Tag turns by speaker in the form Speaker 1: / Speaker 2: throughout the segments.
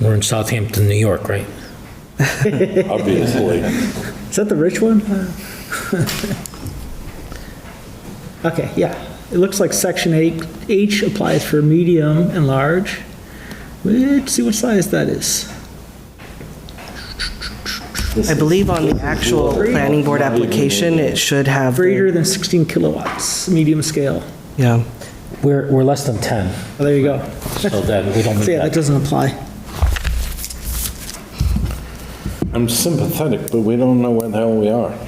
Speaker 1: We're in Southampton, New York, right?
Speaker 2: obviously.
Speaker 3: Is that the rich one? Okay, yeah. It looks like section eight, H applies for medium and large. Let's see what size that is.
Speaker 4: I believe on the actual planning board application, it should have. the-
Speaker 3: Greater than 16 kilowatts, medium scale.
Speaker 4: Yeah.
Speaker 1: We're, we're less than 10,
Speaker 3: Oh, There you go.
Speaker 1: so that we don't
Speaker 3: So
Speaker 1: need
Speaker 3: yeah, that
Speaker 1: that.
Speaker 3: doesn't apply.
Speaker 2: I'm sympathetic, but we don't know where the hell we are.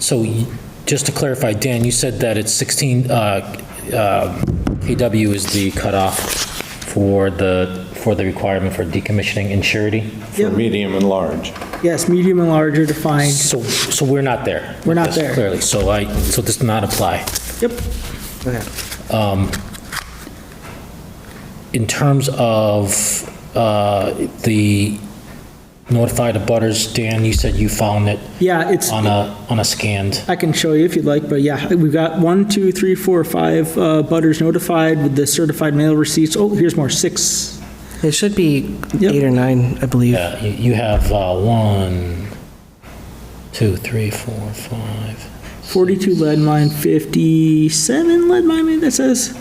Speaker 1: So you- just to clarify, Dan, you said that it's 16, uh, uh, KW is the cutoff for the, for the requirement for decommissioning and surety?
Speaker 2: For medium and large.
Speaker 3: Yes, medium and large are defined.
Speaker 1: So, so we're not there?
Speaker 3: We're not
Speaker 1: Yes,
Speaker 3: there.
Speaker 1: Clearly, so I, so this does not apply.
Speaker 3: Yep.
Speaker 1: In terms of uh, the notified abutters, Dan, you said you found it
Speaker 3: Yeah, it's,
Speaker 1: on a, on a scanned.
Speaker 3: I can show you if you'd like, but yeah, we've got one, two, three, four, five uh, butters notified with the certified mail receipts. Oh, here's more, six.
Speaker 4: It should be
Speaker 3: Yep.
Speaker 4: eight or nine, I believe.
Speaker 1: Yeah, you- you have uh, one, two, three, four, five.
Speaker 3: 42 lead mine, 57 lead mine, maybe that says?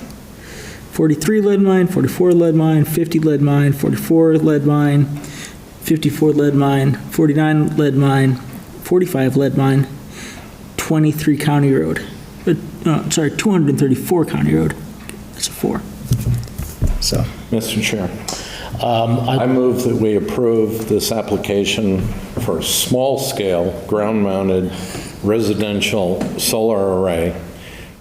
Speaker 3: 43 lead mine, 44 lead mine, 50 lead mine, 44 lead mine, 54 lead mine, 49 lead mine, 45 lead mine, 23 county road. But, uh, sorry, 234 county road. That's a four. So.
Speaker 2: Mr. Chair,
Speaker 1: Um,
Speaker 2: I
Speaker 1: I-
Speaker 2: move that we approve this application for a small-scale, ground-mounted residential solar array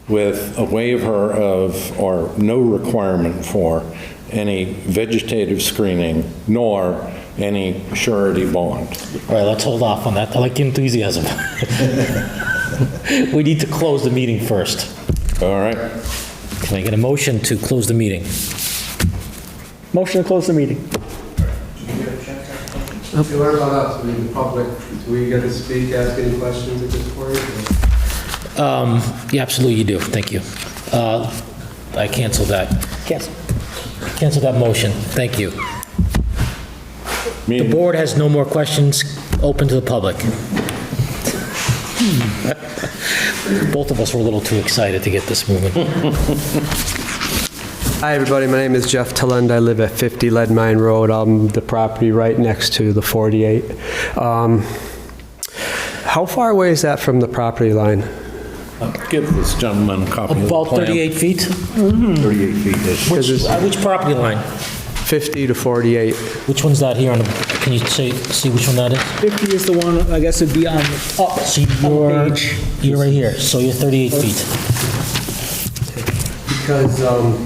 Speaker 2: with a waiver of, or no requirement for, any vegetative screening, nor any surety bond.
Speaker 1: All right, let's hold off on that. I like the enthusiasm. We need to close the meeting first.
Speaker 2: All right?
Speaker 1: Can I get a motion to close the meeting?
Speaker 3: Motion to close the meeting.
Speaker 5: You learn about us, we, the public, do we get to speak, ask any questions at this point? or-
Speaker 1: Um, Yeah, absolutely you do, thank you. Uh, I cancel that.
Speaker 3: Yes.
Speaker 1: Cancel that motion, thank you. The
Speaker 2: Meeting-
Speaker 1: board has no more questions open to the public. Both of us were a little too excited to get this moving.
Speaker 5: Hi, everybody. My name is Jeff Talend. I live at 50 Lead Mine Road. I'm the property right next to the 48. Um, How far away is that from the property line?
Speaker 2: Give this gentleman a copy of the
Speaker 1: About
Speaker 2: plan.
Speaker 1: 38 feet? Mm-hmm.
Speaker 2: 38 feet.
Speaker 1: Which,
Speaker 5: it's-
Speaker 1: uh, which property line?
Speaker 5: 50 to 48.
Speaker 1: Which one's that here on the, can you say, see which one that is?
Speaker 3: 50 is the one, I guess it'd be on the
Speaker 1: Oh, see, you're,
Speaker 3: page.
Speaker 1: you're right here, so you're 38 feet.
Speaker 5: Because um,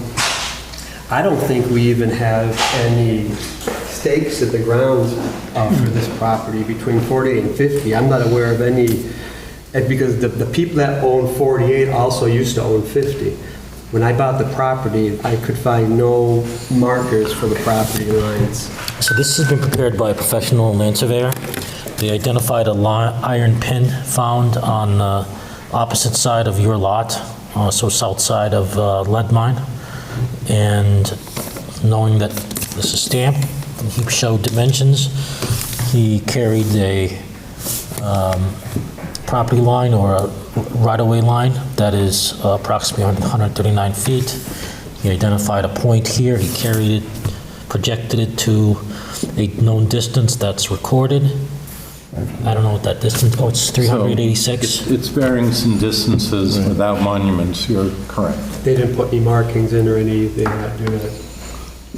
Speaker 5: I don't think we even have any stakes at the ground uh, for this property between 48 and 50. I'm not aware of any, and because the, the people that own 48 also used to own 50. When I bought the property, I could find no markers for the property lines.
Speaker 1: So this has been prepared by a professional land surveyor. They identified a li- iron pin found on the opposite side of your lot, uh, so south side of uh, lead mine. And knowing that this is stamped, he showed dimensions. He carried a um, property line or a right-of-way line that is approximately 139 feet. He identified a point here, he carried it, projected it to a known distance that's recorded. I don't know what that distance, oh, it's
Speaker 2: So,
Speaker 1: 386.
Speaker 2: it's- It's variance in distances without monuments, you're correct.
Speaker 5: They didn't put any markings in or any, they're not doing it.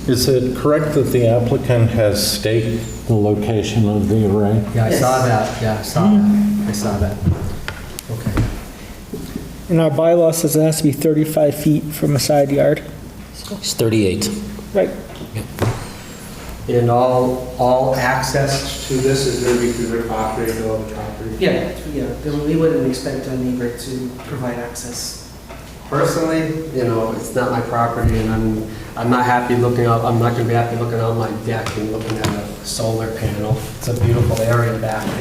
Speaker 2: Is it correct that the applicant has staked the location of the array?
Speaker 5: Yeah, I saw that, yeah, I saw that, I saw that. Okay.
Speaker 3: And our bylaw says it has to be 35 feet from a side yard.
Speaker 1: It's 38.
Speaker 3: Right.
Speaker 5: And all, all access to this is going to be through their property, no other property?
Speaker 4: Yeah, yeah, then we wouldn't expect a neighbor to provide access.
Speaker 5: Personally, you know, it's not my property, and I'm, I'm not happy looking up, I'm not going to be happy looking out my deck and looking at a solar panel. It's a beautiful area back there.